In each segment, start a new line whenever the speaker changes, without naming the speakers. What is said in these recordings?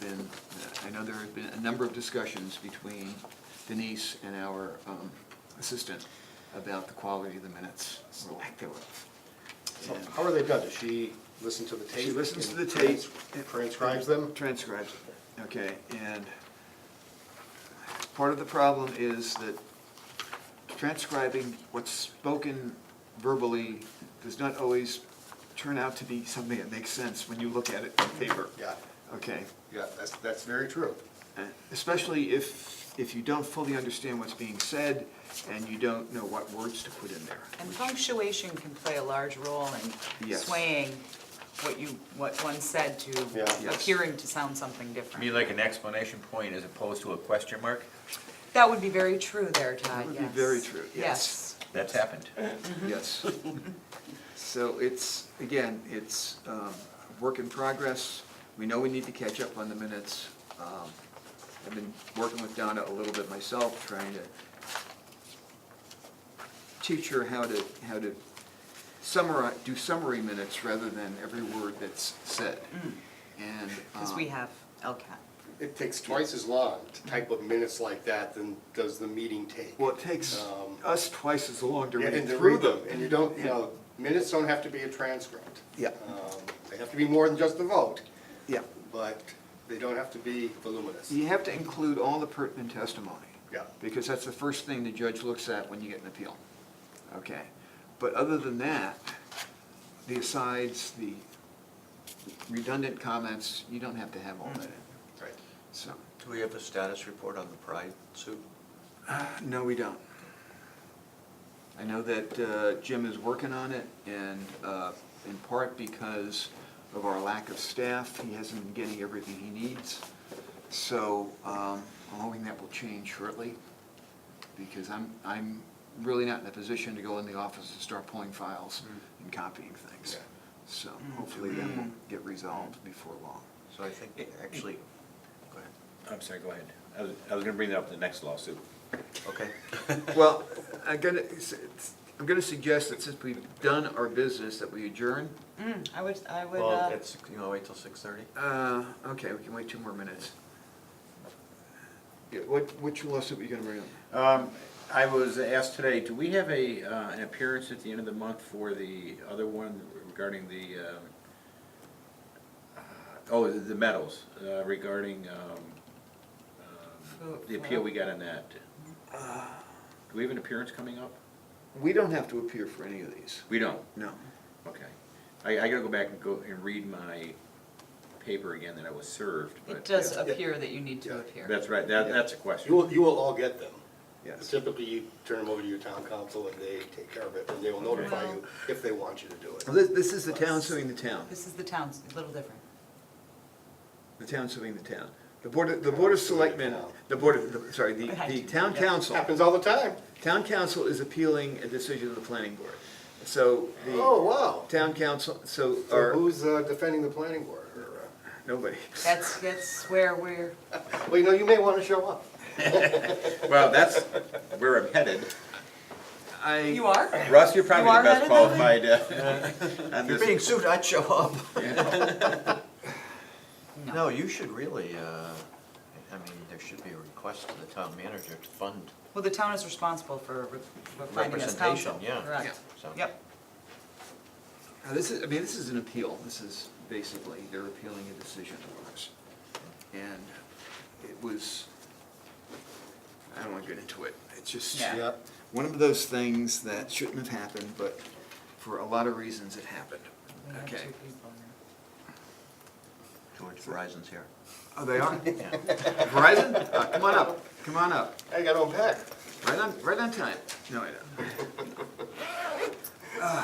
been, uh, I know there have been a number of discussions between Denise and our um, assistant about the quality of the minutes, or lack thereof.
So How are they done? Does she listen to the tape?
She listens to the
and
tape.
Transcribes them?
Transcribes, it. okay, and part of the problem is that transcribing what's spoken verbally does not always turn out to be something that makes sense when you look at it on paper.
Yeah,
Okay,
yeah, that's, that's very true.
especially if, if you don't fully understand what's being said and you don't know what words to put in there.
And
which-
punctuation can play a large role in
Yes.
swaying what you, what one said
Yeah.
to
Yes.
appearing to sound something
You mean
different.
like an exclamation point as opposed to a question mark?
That would be very true there, Todd, yes.
would be very true, yes.
That's happened.
Yes. So it's, again, it's um, a work in progress. We know we need to catch up on the minutes. Um, I've been working with Donna a little bit myself, trying to teach her how to, how to summarize, do summary minutes rather than every word that's said. And.
Because
um,
we have LCAT.
It takes twice as long to type up minutes like that than does the meeting take.
Well, it takes
Um,
us twice as long to
Yeah,
read
And
through
through
them.
them, and you don't, you know, minutes don't have to be a transcript.
Yeah.
Um, They have to be more than just the vote,
Yeah.
but they don't have to be voluminous.
You have to include all the pertinent testimony.
Yeah.
Because that's the first thing the judge looks at when you get an appeal. Okay. But other than that, the asides, the redundant comments, you don't have to have all that in.
Right.
So,
Do we have a status report on the Pride suit?
no, we don't. I know that uh, Jim is working on it and uh, in part because of our lack of staff, he hasn't been getting everything he needs. So um, I'm hoping that will change shortly because I'm, I'm really not in a position to go in the office and start pulling files
Mm.
and copying things.
Yeah.
So hopefully that will get resolved before long.
So I think, actually, go ahead.
I'm sorry, go ahead. I was, I was gonna bring that up in the next lawsuit.
Okay.
Well, I'm gonna, I'm gonna suggest that since we've done our business, that we adjourn.
Mm, I would, I would,
Well,
uh,
it's, you know, wait till six thirty?
Uh, okay, we can wait two more minutes. Yeah, what, which lawsuit were you gonna bring up?
Um, I was asked today, do we have a, uh, an appearance at the end of the month for the other one regarding the, um, uh, oh, the- the medals, uh, regarding, um, um, the appeal we got on that? Do we have an appearance coming up?
Uh, We don't have to appear for any of these.
We don't,
No.
okay. I, I gotta go back and go and read my paper again that I was served, but.
it does
yeah.
appear that you need to
Yeah.
appear.
That's right, that,
Yeah.
that's a
You
question.
will, you will all get them.
Yes.
Typically, you turn them over to your town council and they take care of it, and they will notify you if they want you to do it.
This, this is the town suing the town,
This is the town's, a little different.
the town suing the town. The board, of- the board of selectmen, the board of, the- sorry, the, the town council,
Happens all the time.
town council is appealing a decision of the planning board. So
Oh,
the
wow.
town council, so,
So
or,
who's uh, defending the planning board? or,
nobody.
That's, that's where we're,
uh, Well, you know, you may want to show up.
Well, that's where I'm headed.
I.
you are?
Russ, you're probably
You are
the best
headed that
qualified. uh, on
You're
this.
being sued, I'd show up.
No.
No, you should really, uh, I mean, there should be a request to the town manager to fund
Well, the town is responsible for re- for finding us
representation,
counsel.
yeah.
Correct.
So-
Yep.
Now, this is, I mean, this is an appeal. This is basically, they're appealing a decision of ours. And it was, I don't want to get into it. It's just
Yeah.
Yep.
one of those things that shouldn't have happened, but for a lot of reasons it happened.
We have two
Okay.
people now.
George Verizon's here.
Oh, they are?
Yeah.
Verizon? Uh, Come on up, come on up.
I got to unpack.
Right on, right on time. No, I don't. Uh,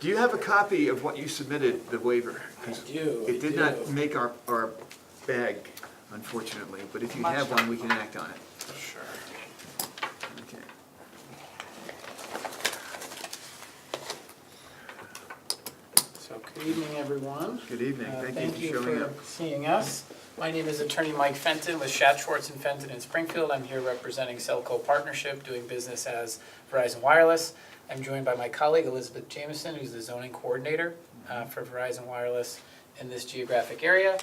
Do you have a copy of what you submitted, the waiver? I do, It did not make our, our bag, unfortunately, but if you
Much.
have one, we can act on it. Sure. Okay.
So, good evening, everyone.
Good evening.
Uh,
Thank you for showing up.
Thank you for seeing us. My name is attorney Mike Fenton with Shat Schwartz and Fenton in Springfield. I'm here representing Cellco Partnership, doing business as Verizon Wireless. I'm joined by my colleague Elizabeth Jameson, who's the zoning coordinator uh, for Verizon Wireless, in this geographic area.